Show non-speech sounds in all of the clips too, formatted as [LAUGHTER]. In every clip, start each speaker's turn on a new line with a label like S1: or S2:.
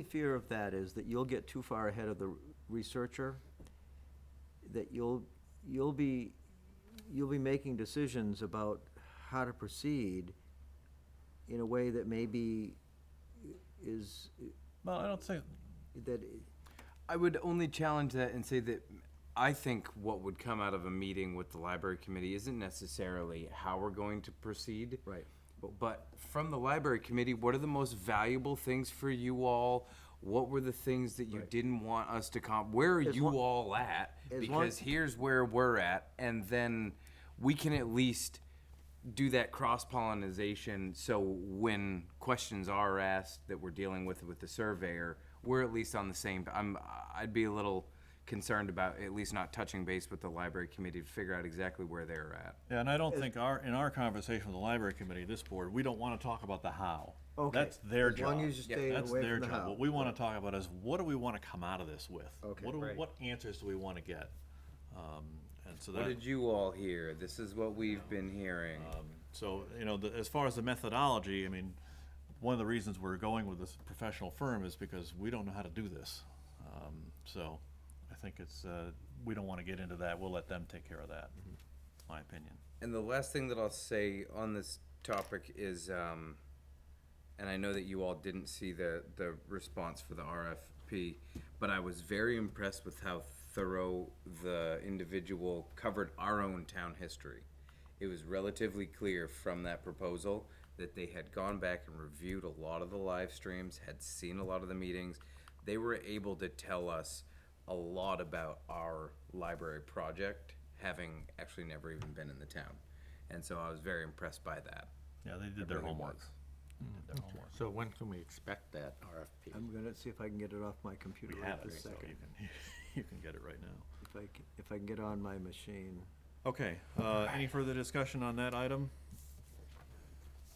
S1: only fear of that is that you'll get too far ahead of the researcher, that you'll, you'll be, you'll be making decisions about how to proceed in a way that maybe is,
S2: Well, I don't think,
S1: that,
S3: I would only challenge that and say that I think what would come out of a meeting with the library committee isn't necessarily how we're going to proceed.
S1: Right.
S3: But, but from the library committee, what are the most valuable things for you all? What were the things that you didn't want us to comp? Where are
S1: As
S3: you
S1: long-
S3: all at?
S1: as long-
S3: Because here's where we're at, and then we can at least do that cross pollination. So when questions are asked that we're dealing with with the surveyor, we're at least on the same. I'm. I'd be a little concerned about at least not touching base with the library committee to figure out exactly where they're at.
S2: yeah, and I don't think our, in our conversation with the library committee, this board, we don't wanna talk about the how.
S1: Okay.
S2: That's their
S1: As
S2: job.
S1: long as you stay
S2: That's
S1: away
S2: their
S1: from the
S2: job.
S1: how.
S2: What we wanna talk about is, what do we wanna come out of this with?
S1: Okay.
S2: What do, we-
S3: Right.
S2: what answers do we wanna get? Um, and so that.
S3: What did you all hear? This is what we've been hearing.
S2: So, you know, the, as far as the methodology, I mean, one of the reasons we're going with this professional firm is because we don't know how to do this. Um, so I think it's, uh, we don't wanna get into that. We'll let them take care of that,
S3: Mm-hmm.
S2: my opinion.
S3: And the last thing that I'll say on this topic is, um, and I know that you all didn't see the, the response for the RFP, but I was very impressed with how thorough the individual covered our own town history. It was relatively clear from that proposal that they had gone back and reviewed a lot of the live streams, had seen a lot of the meetings. They were able to tell us a lot about our library project, having actually never even been in the town. And so I was very impressed by that.
S2: Yeah, they did their
S3: really
S2: homework.
S3: was.
S2: They did their homework.
S4: So when can we expect that RFP?
S1: I'm gonna see if I can get it off my computer
S2: We have
S1: right
S2: it,
S1: this
S2: so
S1: second.
S2: you can, [LAUGHS] you can get it right now.
S1: If I, c- if I can get on my machine.
S2: Okay, uh, any further discussion on that item?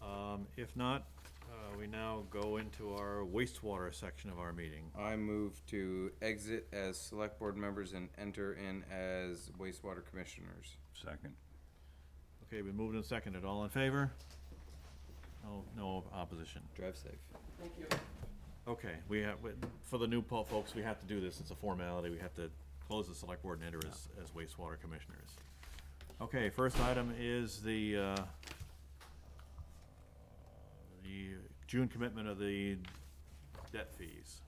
S2: Um, if not, uh, we now go into our wastewater section of our meeting.
S3: I move to exit as select board members and enter in as wastewater commissioners.
S2: Second. Okay, we moved and seconded. All in favor? No, no opposition.
S3: Drive safe.
S2: Okay, we have, we- for the new po- folks, we have to do this. It's a formality. We have to close the select board and enter as, as wastewater commissioners. Okay, first item is the, uh, the June commitment of the debt fees.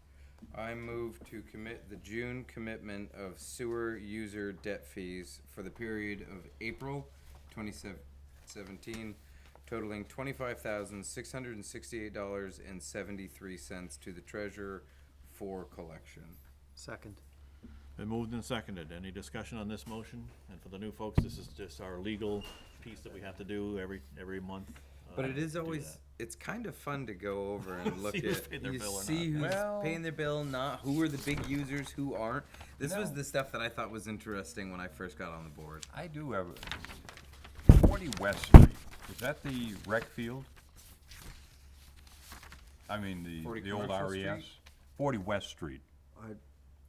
S3: I move to commit the June commitment of sewer user debt fees for the period of April twenty seventeen totaling twenty-five thousand, six hundred and sixty-eight dollars and seventy-three cents to the treasurer for collection.
S1: Second.
S2: Been moved and seconded. Any discussion on this motion? And for the new folks, this is just our legal piece that we have to do every, every month.
S3: But
S2: uh,
S3: it is
S2: to do
S3: always
S2: that.
S3: it's kind of fun to go over and
S2: [LAUGHS]
S3: look
S2: See
S3: at
S2: who's paying their
S3: you
S2: bill or
S3: see
S2: not.
S3: who's
S2: Well-
S3: paying their bill, not who are the big users, who aren't. This was
S4: No.
S3: the stuff that I thought was interesting when I first got on the board.
S4: I do have, a- forty West Street, is that the rec field? I mean,
S3: 40
S4: the, the old
S3: Commercial
S4: RES? Forty West Street.
S1: I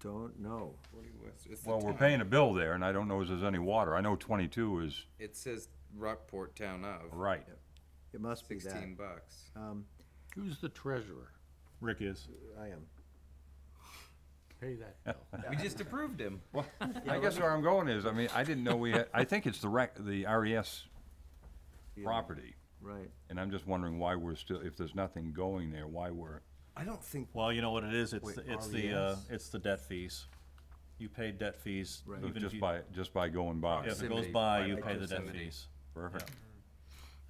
S1: don't know.
S3: What do you- what's- it's the
S4: Well, we're
S3: town.
S4: paying a bill there, and I don't know if there's any water. I know twenty-two is
S3: It says Rockport Town of
S4: right.
S1: It must be that.
S3: sixteen bucks.
S5: Who's the treasurer?
S2: Rick is.
S1: I am.
S5: Pay that
S2: [LAUGHS]
S5: bill.
S3: We just approved him.
S4: Well, I guess where I'm going is, I mean, I didn't know we had, I think it's the rec, the RES
S1: Yeah,
S4: property.
S1: Right.
S4: And I'm just wondering why we're still, if there's nothing going there, why we're,
S3: I don't think
S2: Well, you know what it is? It's,
S4: Wait,
S2: the- it's the, uh,
S4: RES?
S2: it's the debt fees. You pay debt fees.
S1: Right.
S2: even if
S4: just
S2: you-
S4: by, just by going by.
S2: If it goes
S3: Proximity,
S2: by,
S3: by
S2: you pay the debt
S3: proximity.
S2: fees.
S4: Perfect.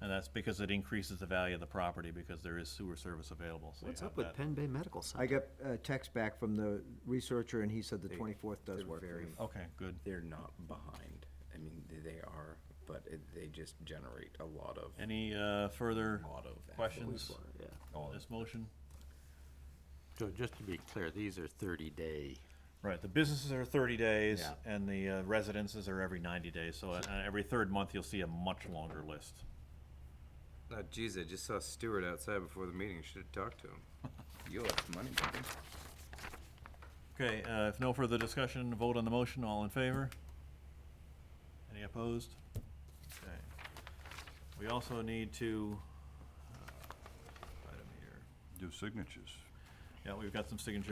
S2: And that's because it increases the value of the property because there is sewer service available, so you
S5: What's
S2: have
S5: up with
S2: that.
S5: Penn Bay Medical
S1: I
S5: Center?
S1: got a text back from the researcher, and he said the twenty-fourth does work for
S3: very-
S1: me.
S2: Okay, good.
S3: they're not behind. I mean, they- they are, but it, they just generate a lot of
S2: Any, uh, further
S3: lot of effluent
S2: questions
S3: water.
S5: Yeah.
S2: on this motion?
S5: So just to be clear, these are thirty-day.
S2: Right, the businesses are thirty days,
S5: Yeah.
S2: and the uh, residences are every ninety days, so uh, every third month you'll see a much longer list.
S3: Oh, geez, I just saw Stewart outside before the meeting. Should have talked to [LAUGHS] him. You owe us money. buddy.
S2: Okay, uh, if no further discussion, vote on the motion, all in favor? Any opposed? Okay. We also need to, uh, item here,
S4: Do signatures.
S2: Yeah, we've got some signatures